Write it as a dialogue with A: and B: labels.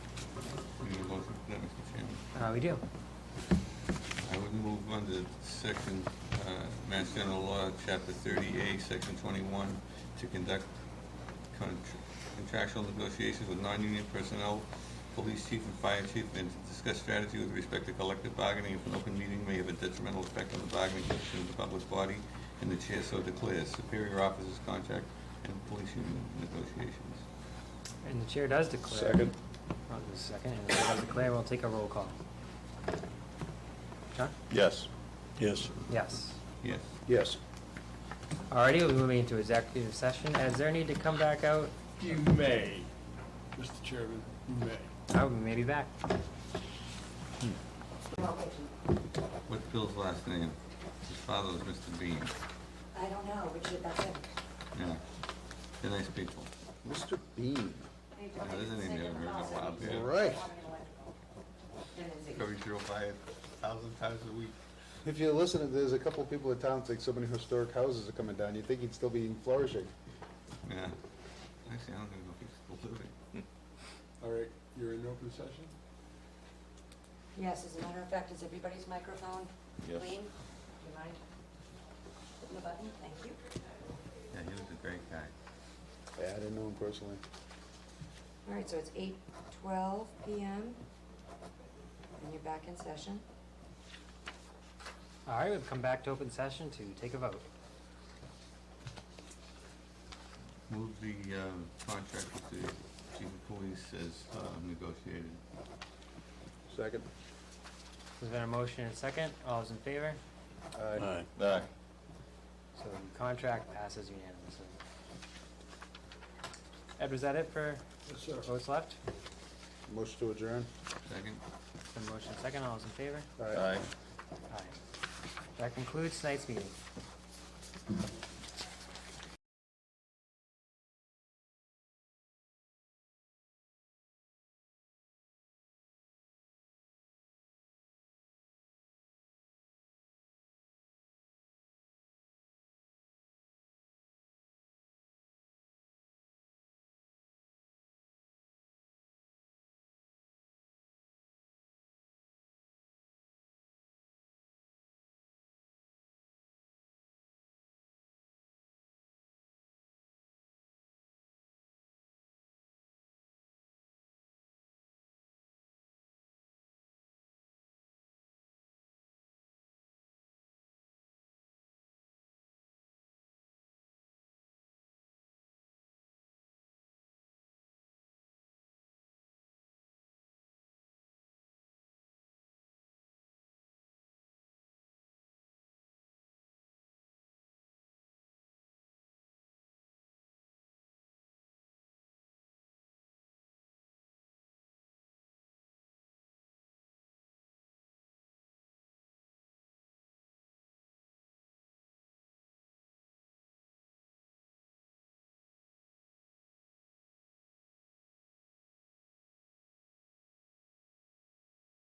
A: how Uh, we do.
B: I would move under section, uh, Mass General Law, Chapter 30A, Section 21, to conduct contr- contractual negotiations with non-union personnel, police chief and fire chief, and to discuss strategy with respect to collective bargaining if an open meeting may have a detrimental effect on the bargaining position of the public body, and the chair so declares, superior officers contract and police union negotiations.
A: And the chair does declare.
C: Second.
A: Well, there's a second, and the chair does declare, we'll take a roll call. John?
C: Yes. Yes.
A: Yes.
B: Yes.
C: Yes.
A: Alrighty, we'll be moving into executive session. Is there a need to come back out?
D: You may, Mr. Chairman, you may.
A: I would maybe back.
B: What's Bill's last name? His father was Mr. Bean.
E: I don't know, Richard, that's it.
B: Yeah. They're nice people.
C: Mr. Bean.
B: That is a name you haven't heard in a while, yeah.
C: All right.
B: Coverage zero five thousand times a week.
C: If you listen, there's a couple of people in town think so many historic houses are coming down. You'd think he'd still be flourishing.
B: Yeah. Actually, I don't even know if he's still living.
D: All right, you're in open session?
E: Yes, as a matter of fact, is everybody's microphone clean? Do you mind? Hitting the button, thank you.
B: Yeah, he was a great guy.
C: Yeah, I didn't know him personally.
E: All right, so it's eight twelve PM, and you're back in session.
A: Alright, we've come back to open session to take a vote.
B: Move the, um, contract with the chief of police as, uh, negotiated.
C: Second.
A: There's been a motion and a second. All those in favor?
C: Aye.
B: Aye.
A: So the contract passes unanimously. Ed, was that it for
D: Yes, sir.
A: votes left?
C: Motion to adjourn.
B: Second?
A: There's been a motion and a second. All those in favor?
C: Aye.
A: Aye. That concludes tonight's meeting.